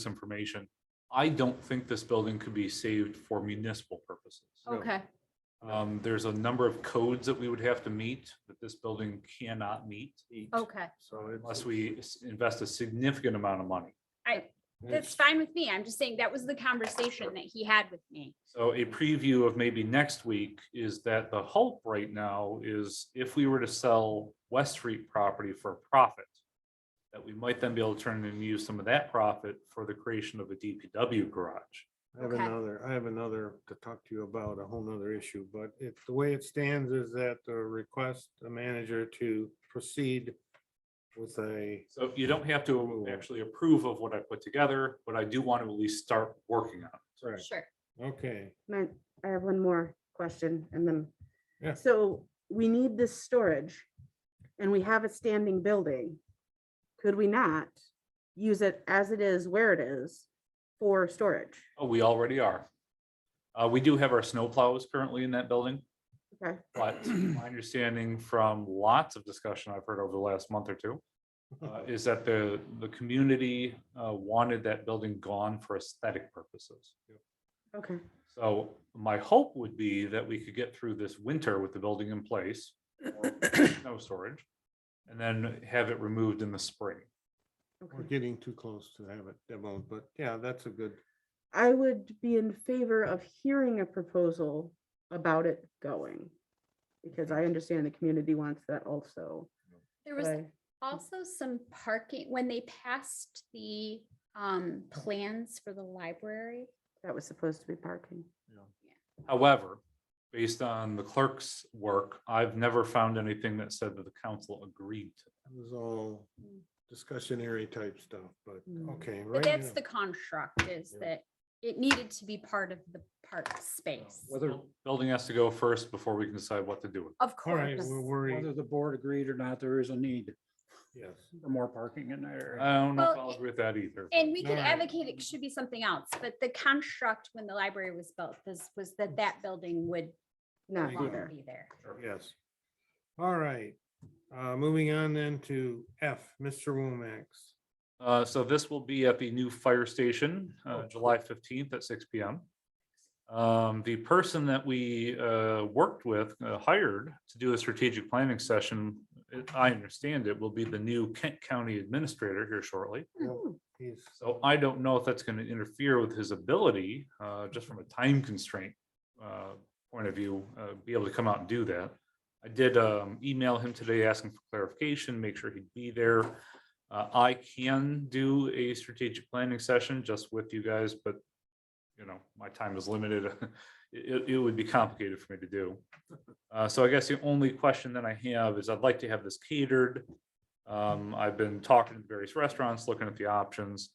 misinformation. I don't think this building could be saved for municipal purposes. Okay, Um, there's a number of codes that we would have to meet that this building cannot meet okay. So it's- unless we s- invest a significant amount of money. I, that's it's- fine with me. I'm just saying that was the conversation that he had with me. So a preview of maybe next week is that the hope right now is if we were to sell West Street property for a profit, that we might then be able to turn and use some of that profit for the creation of a DPW garage. I have Okay. another, I have another to talk to you about, a whole nother issue, but it, the way it stands is that the request the manager to proceed with a, So you don't have to actually approve of what I put together, but I do want to at least start working on it. right, Sure. okay, My, I have one more question and Yeah. then, so we need this storage and we have a standing building. Could we not use it as it is where it is for storage? Oh, we already are. Uh, we do have our snowplows currently in that building, Okay, but my understanding from lots of discussion I've heard over the last month or two uh, is that the, the community uh, wanted that building gone for aesthetic purposes. okay, So my hope would be that we could get through this winter with the building in place, or snow storage, and then have it removed in the spring. we're okay. getting too close to have it demoed, but yeah, that's a good, I would be in favor of hearing a proposal about it going. Because I understand the community wants that also. There but was I- also some parking, when they passed the um plans for the library. That was supposed to be parking. However, based on the clerk's work, I've never found anything that said that the council agreed to. it was all discussionary type stuff, but, Mm. okay. Hmm. But right that's now- the construct is Yeah. that it needed to be part of the park space. Whether, Building has to go first before we can decide what to do with. it. Of All right, course. we're worried, whether the board agreed or not, there is a need yes, for more parking in that area. I don't know if Well, I'll agree with that either. but And we All could right. advocate it should be something else, but the construct when the library was built, this was Mm. that that building would no Not you go. longer either. be there. yes. All right, uh, moving on then to F, Mr. Womack's. Uh, so this will be at the new fire station, uh, July fifteenth at six P M. Um, the person that we, uh, worked with, uh, hired to do a strategic planning session, it- I understand it will be the new Kent County Administrator here shortly. Hmm. Yep, He's, So I don't know if that's going to interfere with his ability, uh, just from a time constraint uh, point of view, uh, be able to come out and do that. I did um, email him today asking for clarification, make sure he'd be there. Uh, I can do a strategic planning session just with you guys, but you know, my time is limited. It, it would be complicated for me to do. Uh, So I guess the only question that I have is I'd like to have this catered. Um, I've been talking to various restaurants, looking at the options.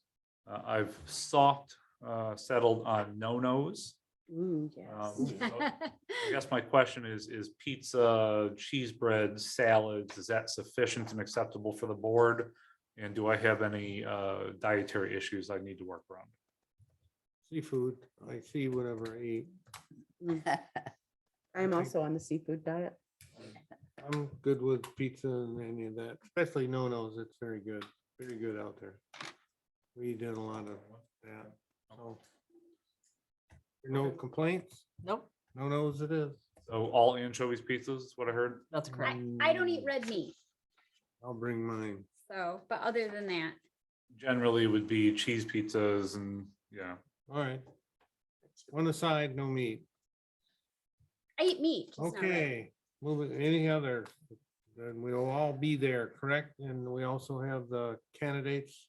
Uh, I've sought, uh, settled on no-nos. Ooh, Mm, yes. Um, so I guess my question is, is pizza, cheese bread, salads, is that sufficient and acceptable for the board? And do I have any, uh, dietary issues I need to work around? seafood, I see whatever I eat. I'm Okay. also on the seafood diet. I'm good with pizza and any of that, especially no-nos. It's very good, very good out there. We did a lot of that, so. No complaints? Nope, No-nos it is. Mm, So all anchovies pizzas, is what I heard? that's correct. I, I don't eat red meat, I'll bring mine. so, but other than that, Generally would be cheese pizzas and, yeah. All right. One aside, no meat. I eat meat. just not red. Okay, moving, any other? Then we'll all be there, correct? And we also have the candidates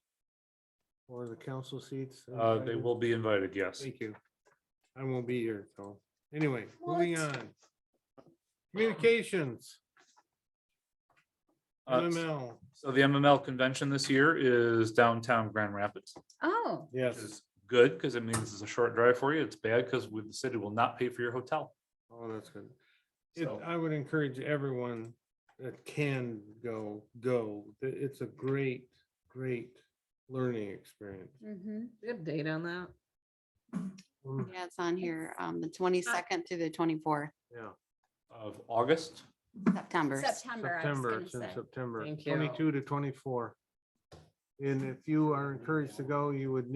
for the council seats. Uh, they invited? will be invited, yes. Thank you. I won't be here, so, anyway, What? moving on. Communications, Uh, MML. So the MML convention this year is downtown Grand Rapids, Oh, which is good because it means it's a short drive for you. It's bad because the city will not pay for your hotel. Oh, that's good. It, So- I would encourage everyone that can go, go. It- It's a great, great learning experience. mm-hmm. We have data on that. Mm, Yeah, it's on here, um, the twenty-second to the twenty-fourth, Yeah, Of August, September. September, I was September, gonna it's in say. September, Thank you. twenty-two to twenty-four. And if you are encouraged to go, you would need